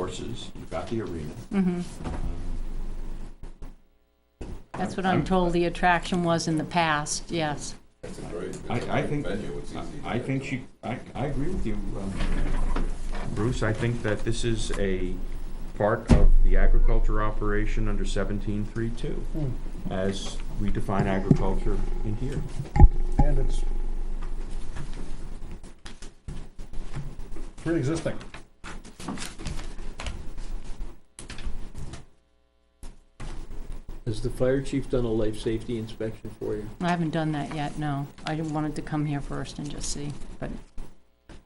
courses, you've got the arena. That's what I'm told the attraction was in the past, yes. It's a great, it's I, a I great think, venue, it's easy to I think get she, I, I agree with you, um, Bruce, I think that this is a part of the agriculture operation under seventeen three two, Hmm. as we define agriculture in here. And it's pre-existing. Has the fire chief done a life safety inspection for you? I haven't done that yet, no. I didn't- wanted to come here first and just see, but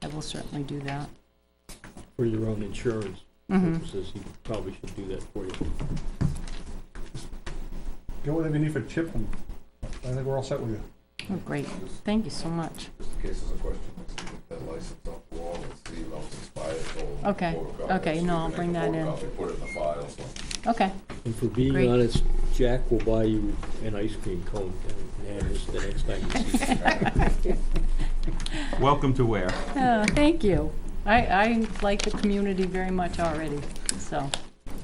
I will certainly do that. For your own insurance Mhm. purposes, he probably should do that for you. Get whatever you need for chip, and I think we're all set with you. Oh, great. Thank you so much. Just in case there's a question, let's get that license off the wall, let's see if it's expired, so. Okay, photocopy it, okay, so we no, can I'll make bring a that in. photocopy, Put it in the file, so. Okay, And for being Great. honest, Jack will buy you an ice cream cone and have this the next time you see him. Welcome to Ware. Oh, thank you. I, I like the community very much already, so,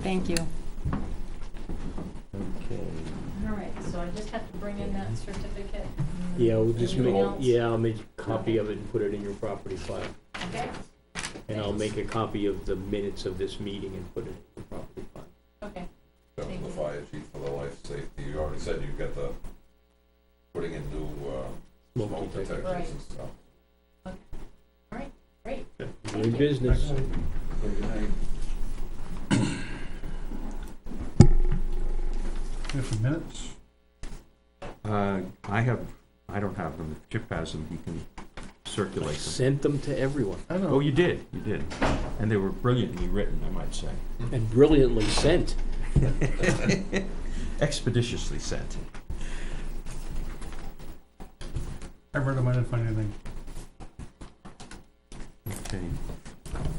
thank you. All right, so I just have to bring in that certificate? Yeah, we'll just Anything make, else? yeah, I'll make a copy of it and put it in your property file. Okay, And I'll make a copy of the minutes of this meeting and put it in your property file. okay. That's Thank the you. fire chief for the life safety, you already said you've got the, putting in new, uh, smoke Smoke detector. detectors and stuff. You're in business. We have some minutes. Uh, I have, I don't have them, if Chip has them, he can circulate them. Sent them to everyone I Oh, know. you did, you did, and they were brilliantly written, I might say, and brilliantly sent. expeditiously sent. I read them, I didn't find anything. Okay.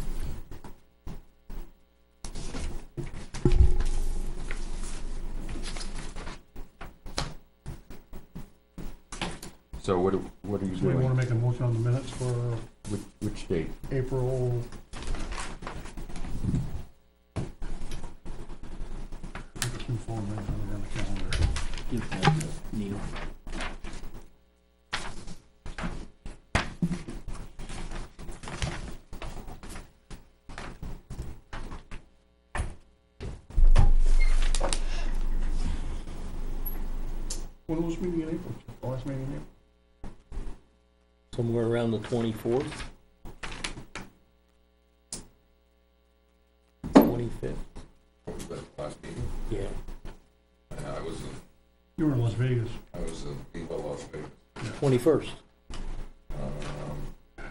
So what, do- what are you Do we want doing? to make a motion on the minutes for Which, which date? April? Two full minutes on the calendar. Neil. When was meeting in April? The Last meeting in April? Somewhere around the twenty-fourth? Twenty-fifth, What was that last meeting? yeah. And I was in, You were in Las Vegas. I was in Viva Las Vegas. Twenty-first, Um,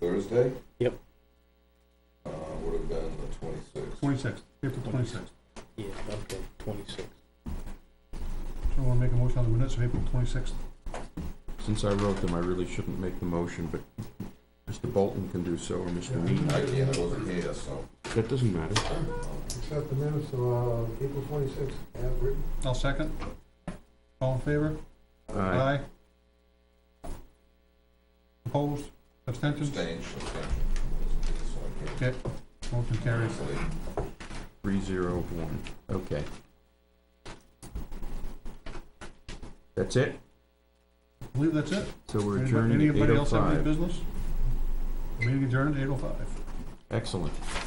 Thursday? Yep. Uh, would have been the twenty-sixth. Twenty-sixth, April twenty-sixth. yeah, okay, twenty-sixth. So we want to make a motion on the minutes of April twenty-sixth. Since I wrote them, I really shouldn't make the motion, but Mr. Bolton can do so, or Mr. Yeah. Mead. I can't, I wasn't here, so. That doesn't matter. Accept the minutes of uh, April 26th, as written. I'll second. All in favor? Uh, Opposed? Abstentions? Abstain, abstain. So I can't Okay, motion carries. sleep. Three zero one, okay. That's it? I believe that's it. So we're Anybody- adjourned at eight Anybody oh else have any five. business? Meeting adjourned at eight oh five. Excellent.